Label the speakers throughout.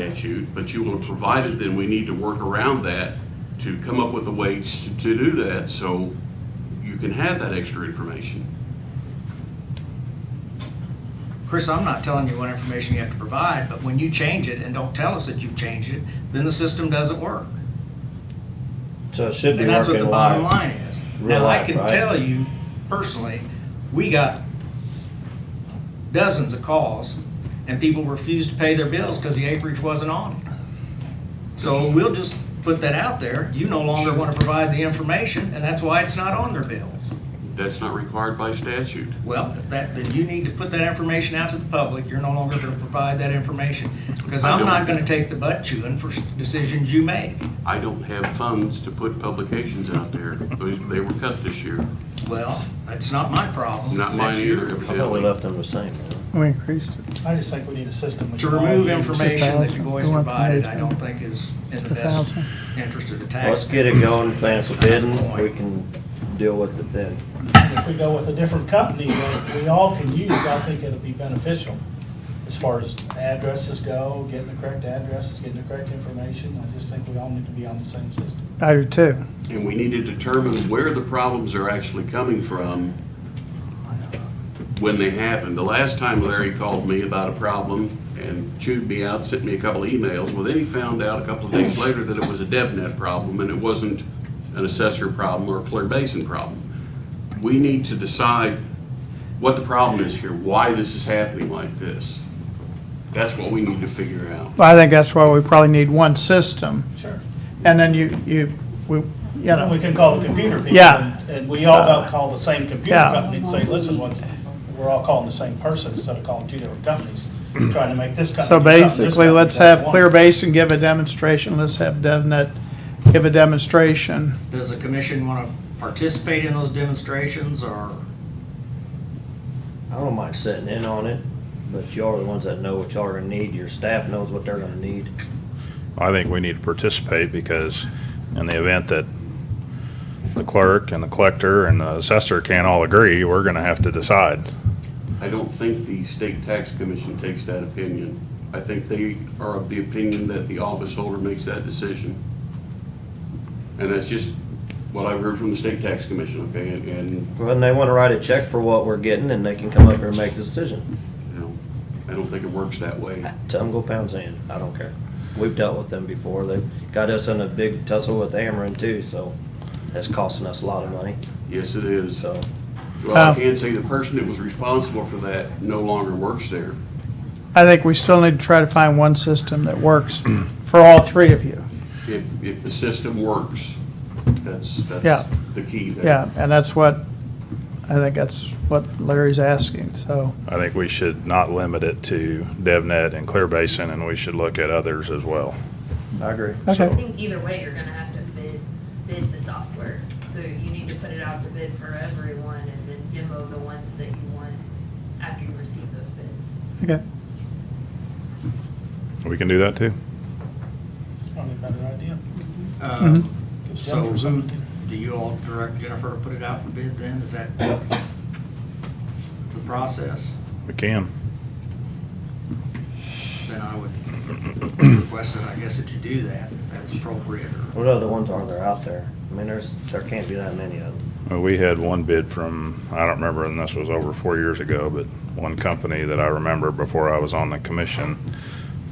Speaker 1: statute, but you will have provided then we need to work around that to come up with a way to, to do that, so you can have that extra information.
Speaker 2: Chris, I'm not telling you what information you have to provide, but when you change it and don't tell us that you've changed it, then the system doesn't work.
Speaker 3: So it should be
Speaker 2: And that's what the
Speaker 3: working
Speaker 2: bottom
Speaker 3: live.
Speaker 2: line is.
Speaker 3: Real
Speaker 2: Now, I
Speaker 3: life,
Speaker 2: can
Speaker 3: right?
Speaker 2: tell you personally, we got dozens of calls and people refused to pay their bills because the acreage wasn't on it. So we'll just put that out there. You no longer want to provide the information and that's why it's not on their bills.
Speaker 1: That's not required by statute.
Speaker 2: Well, that, then you need to put that information out to the public. You're no longer going to provide that information. Because
Speaker 1: I
Speaker 2: I'm
Speaker 1: don't-
Speaker 2: not going to take the butt chewing for s- decisions you make.
Speaker 1: I don't have funds to put publications out there. Those- They were cut this year.
Speaker 2: Well, that's not my problem.
Speaker 1: Not mine
Speaker 2: That's
Speaker 1: either,
Speaker 2: your-
Speaker 3: I thought we
Speaker 1: evidently.
Speaker 3: left them the same.
Speaker 4: We increased it.
Speaker 5: I just think we need a system. which
Speaker 2: To
Speaker 5: is all
Speaker 2: remove
Speaker 5: you-
Speaker 2: information that you've
Speaker 4: 2,000.
Speaker 2: always
Speaker 4: We want
Speaker 2: provided, I
Speaker 4: promotion.
Speaker 2: don't think is in the best
Speaker 4: 2,000.
Speaker 2: interest of the taxpayer.
Speaker 3: Let's get it going, plan some bidding, we can deal with it then.
Speaker 5: If we go with a different company that we all can use, I think it'll be beneficial as far as addresses go, getting the correct addresses, getting the correct information. I just think we all need to be on the same system.
Speaker 4: I do too.
Speaker 1: And we need to determine where the problems are actually coming from when they happen. The last time Larry called me about a problem and chewed me out, sent me a couple of emails, well, then he found out a couple of days later that it was a DevNet problem and it wasn't an assessor problem or a Clear Basin problem. We need to decide what the problem is here, why this is happening like this. That's what we need to figure out.
Speaker 4: But I think that's why we probably need one system.
Speaker 5: Sure.
Speaker 4: And then you, you, we, you
Speaker 5: And we
Speaker 4: know,
Speaker 5: can call the computer people.
Speaker 4: Yeah.
Speaker 5: and- And we all don't call the same computer
Speaker 4: Yeah.
Speaker 5: company and say, listen, what's, we're all calling the same person instead of calling two different companies, trying to make this company.
Speaker 4: so
Speaker 5: do something, this
Speaker 4: basically,
Speaker 5: company
Speaker 4: let's
Speaker 5: doesn't
Speaker 4: have
Speaker 5: want
Speaker 4: Clear
Speaker 5: it.
Speaker 4: Basin give a demonstration, let's have DevNet give a demonstration.
Speaker 2: Does the commission want to participate in those demonstrations or?
Speaker 3: I don't mind sitting in on it, but y'all are the ones that know what y'all are gonna need, your staff knows what they're gonna need.
Speaker 6: I think we need to participate because in the event that the clerk and the collector and the assessor can't all agree, we're gonna have to decide.
Speaker 1: I don't think the state tax commission takes that opinion. I think they are of the opinion that the office holder makes that decision. And that's just what I've heard from the state tax commission, okay? And- And,
Speaker 3: Well, then they wanna write a check for what we're getting and they can come up here and make the decision.
Speaker 1: you know, I don't think it works that way.
Speaker 3: Tell them go pound sand, I don't care. We've dealt with them before, they got us in a big tussle with Ameren too, so that's costing us a lot of money,
Speaker 1: Yes, it is.
Speaker 3: so.
Speaker 1: Well,
Speaker 4: Um,
Speaker 1: I can say the person that was responsible for that no longer works there.
Speaker 4: I think we still need to try to find one system that works for all three of you.
Speaker 1: If, if the system works, that's,
Speaker 4: Yeah.
Speaker 1: that's the key there.
Speaker 4: Yeah, and that's what, I think that's what Larry's asking, so.
Speaker 6: I think we should not limit it to DevNet and Clear Basin, and we should look at others as well.
Speaker 3: I agree.
Speaker 4: Okay.
Speaker 7: I think either way, you're gonna have to bid, bid the software. So you need to put it out to bid for everyone and then demo the ones that you want after you receive those bids.
Speaker 4: Okay,
Speaker 6: We can do that too.
Speaker 5: Probably a better idea.
Speaker 2: uh,
Speaker 4: Mhm.
Speaker 5: Gives
Speaker 2: So
Speaker 5: Jennifer
Speaker 2: who,
Speaker 5: something to do.
Speaker 2: do you all direct Jennifer to put it out for bid then? Is that the process?
Speaker 6: We can.
Speaker 2: Then I would request that, I guess, that you do that, if that's appropriate or.
Speaker 3: What other ones are there out there? I mean, there's, there can't be that many of them.
Speaker 6: Uh, We had one bid from, I don't remember, and this was over four years ago, but one company that I remember before I was on the
Speaker 2: I
Speaker 6: commission,
Speaker 2: think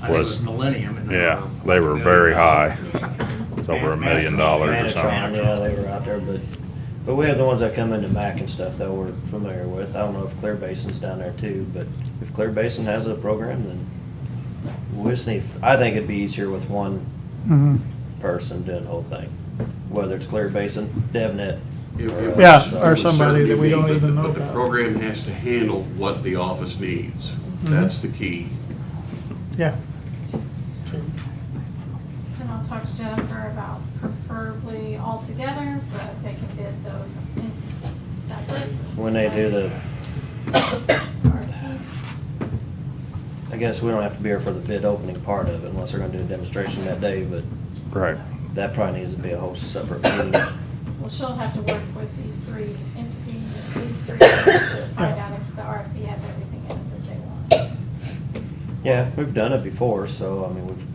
Speaker 2: it was
Speaker 6: Was-
Speaker 2: Millennium and they were.
Speaker 6: yeah, they were very high. It was over a million dollars or
Speaker 3: Manatron,
Speaker 6: something.
Speaker 3: yeah, they were out there, but, but we have the ones that come into Mac and stuff that we're familiar with. I don't know if Clear Basin's down there too, but if Clear Basin has a program, then we just need, I think it'd be easier with one
Speaker 4: mhm.
Speaker 3: person doing the whole thing, whether it's Clear Basin, DevNet.
Speaker 1: If
Speaker 3: or
Speaker 1: it
Speaker 3: us,
Speaker 1: was-
Speaker 4: Yeah,
Speaker 3: so.
Speaker 4: or
Speaker 1: it would
Speaker 4: somebody that we
Speaker 1: certainly be,
Speaker 4: don't
Speaker 1: but-
Speaker 4: even know
Speaker 1: But the
Speaker 4: about.
Speaker 1: program has to handle what the office needs.
Speaker 4: Mm-hmm.
Speaker 1: That's the key.
Speaker 4: yeah,
Speaker 5: True.
Speaker 8: And I'll talk to Jennifer about preferably all together, but they can bid those in separate.
Speaker 3: When they do the,
Speaker 8: RFP.
Speaker 3: I guess we don't have to be here for the bid opening part of it unless they're gonna do a demonstration that day, but
Speaker 6: Right.
Speaker 3: that probably needs to be a whole separate meeting.
Speaker 8: Well, she'll have to work with these three entities, these three entities to find out if the RFP has everything in it that they want.
Speaker 3: Yeah, we've done it before, so, I mean, we've